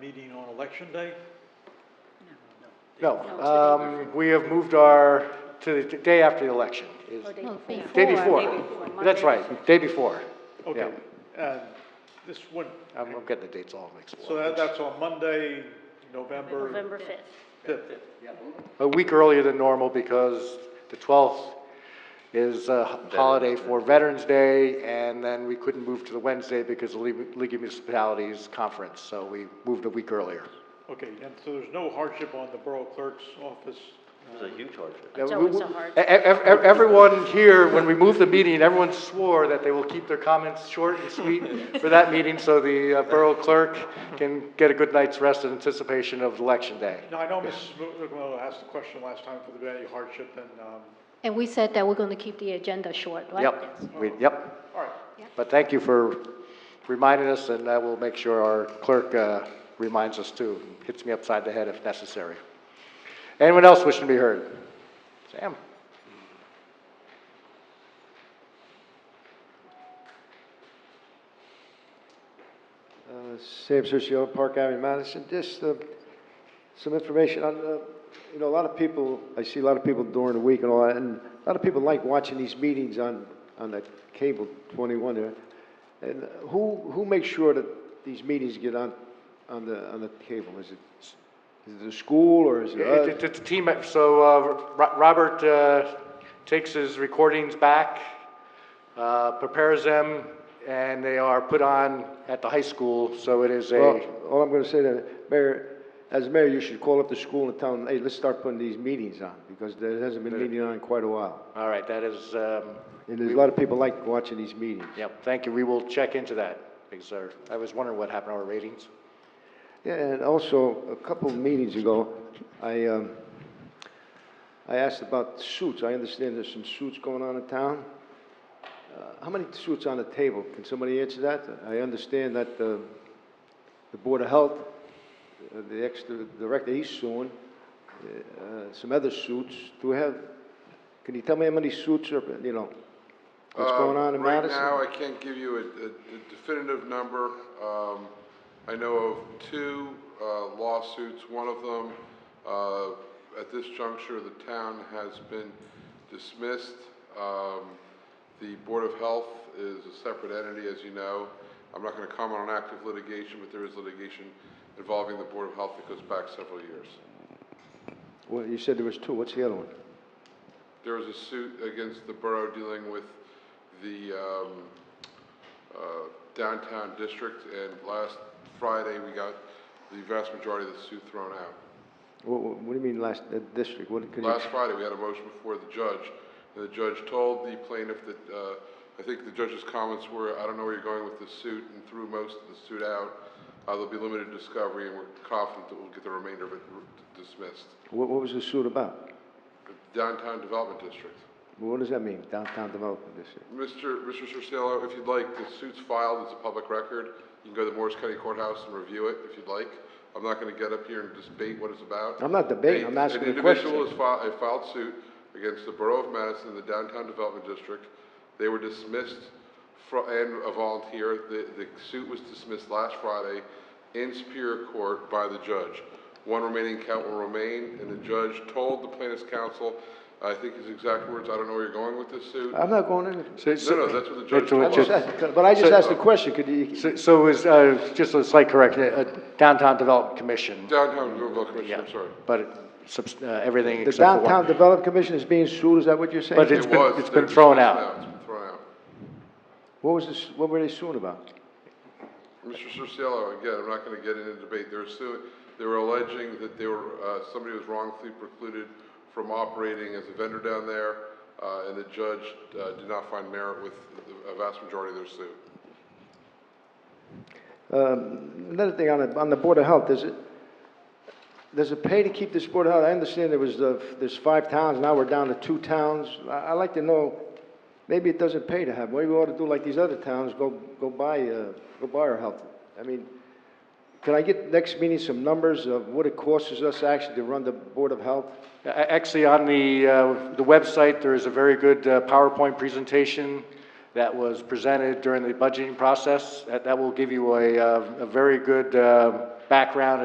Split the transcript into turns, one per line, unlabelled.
meeting on election day?
No,
No, it's the day
um, we have moved our, to the day after the election. is-
Or Oh, day
No,
before.
Day
before.
before.
before,
That's
Monday
right, day before.
Okay,
Yeah.
and this one,
I'm I'm getting the dates all mixed
so that,
up.
that's on Monday, November
November 5th.
fifth.
A week earlier than normal because the 12th is a holiday for Veterans Day, and then we couldn't move to the Wednesday because of the League League of Municipalities Conference, so we moved a week earlier.
Okay, and so there's no hardship on the borough clerk's office?
It was a huge hardship.
Yeah,
It's
we-
always
we-
a hard-
e- e- ev- Everyone here, when we moved the meeting, everyone swore that they will keep their comments short and sweet for that meeting, so the uh, borough clerk can get a good night's rest in anticipation of Election Day.
Now, I know Mrs. McMillan asked the question last time for the value hardship, and, um,
And we said that we're going to keep the agenda short, right?
Yep, we- yep.
all right,
But thank you for reminding us, and I will make sure our clerk uh, reminds us too, hits me upside the head if necessary. Anyone else wishing to be heard? Sam?
Uh, Sam Sergio, Park Avenue, Madison. Just uh, some information on, uh, you know, a lot of people, I see a lot of people during the week and all that, and a lot of people like watching these meetings on, on the cable 21 there. And who, who makes sure that these meetings get on, on the, on the cable? Is it, is it the school or is it
It- it-
us?
It's a team, e- so uh, Ro- Robert uh, takes his recordings back, uh, prepares them, and they are put on at the high school, so it is
Well,
a,
all I'm going to say then, Mayor, as mayor, you should call up the school and tell them, hey, let's start putting these meetings on, because there hasn't been a meeting on in quite a while.
all right, that is, um,
And there's a lot of people like watching these meetings.
yep, thank you, we will check into that, because uh, I was wondering what happened to our ratings.
Yeah, and also, a couple of meetings ago, I, um, I asked about suits. I understand there's some suits going on in town. Uh, How many suits on the table? Can somebody answer that? I understand that uh, the Board of Health, uh, the ex-director, he's suing, uh, some other suits. Do we have, can you tell me how many suits are, you know, what's
Uh,
going on in Madison?
Right now, I can't give you a a- a definitive number. Um, I know of two uh, lawsuits. One of them, uh, at this juncture, the town has been dismissed. Um, The Board of Health is a separate entity, as you know. I'm not going to comment on active litigation, but there is litigation involving the Board of Health that goes back several years.
Well, you said there was two. What's the other one?
There was a suit against the borough dealing with the um, uh, downtown district, and last Friday, we got the vast majority of the suit thrown out.
What, what what do you mean last, uh, district? What, could you?
Last Friday, we had a motion before the judge, and the judge told the plaintiff that, uh, I think the judge's comments were, I don't know where you're going with this suit, and threw most of the suit out. Uh, There'll be limited discovery, and we're confident that we'll get the remainder of it dismissed.
What, what was the suit about?
Downtown Development District.
What does that mean, downtown development district?
Mr. Mr. Cerciolo, if you'd like, the suit's filed, it's a public record. You can go to the Morris County Courthouse and review it if you'd like. I'm not gonna get up here and debate what it's about.
I'm not debating, I'm
A-
asking a
An individual
question.
has filed, filed suit against the Borough of Madison, and the Downtown Development District. They were dismissed fro- and a volunteer. The, the suit was dismissed last Friday in Superior Court by the judge. One remaining count will remain, and the judge told the plaintiff's counsel, I think his exact words, I don't know where you're going with this suit.
I'm not going in,
No, no, that's what the judge
So
I
told
it's
just
us.
asked- but I just
So-
asked the question, could you,
So- So is, uh, just a slight correction, uh, Downtown Development Commission,
Downtown Louisville Commission, I'm sorry.
but subs- uh, everything
the
except for one.
downtown development commission is being sued, is that what you're saying?
But it's
It
been-
was,
it's
they're
been thrown
dismissed
out.
now, It's been thrown out.
What was this, what were they suing about?
Mr. Cerciolo, again, I'm not going to get into debate. They're suing, they were alleging that they were, uh, somebody was wrongfully precluded from operating as a vendor down there, uh, and the judge uh, did not find merit with the- a vast majority of their suit.
Um, Another thing on the, on the Board of Health, does it, does it pay to keep this Board of Health? I understand there was, uh, there's five towns, now we're down to two towns. I, I'd like to know, maybe it doesn't pay to have, maybe we ought to do like these other towns, go, go buy, uh, go buy our health. I mean, can I get next meeting some numbers of what it costs us actually to run the Board of Health?
A- Actually, on the, uh, the website, there is a very good uh, PowerPoint presentation that was presented during the budgeting process. That that will give you a, uh, a very good uh, background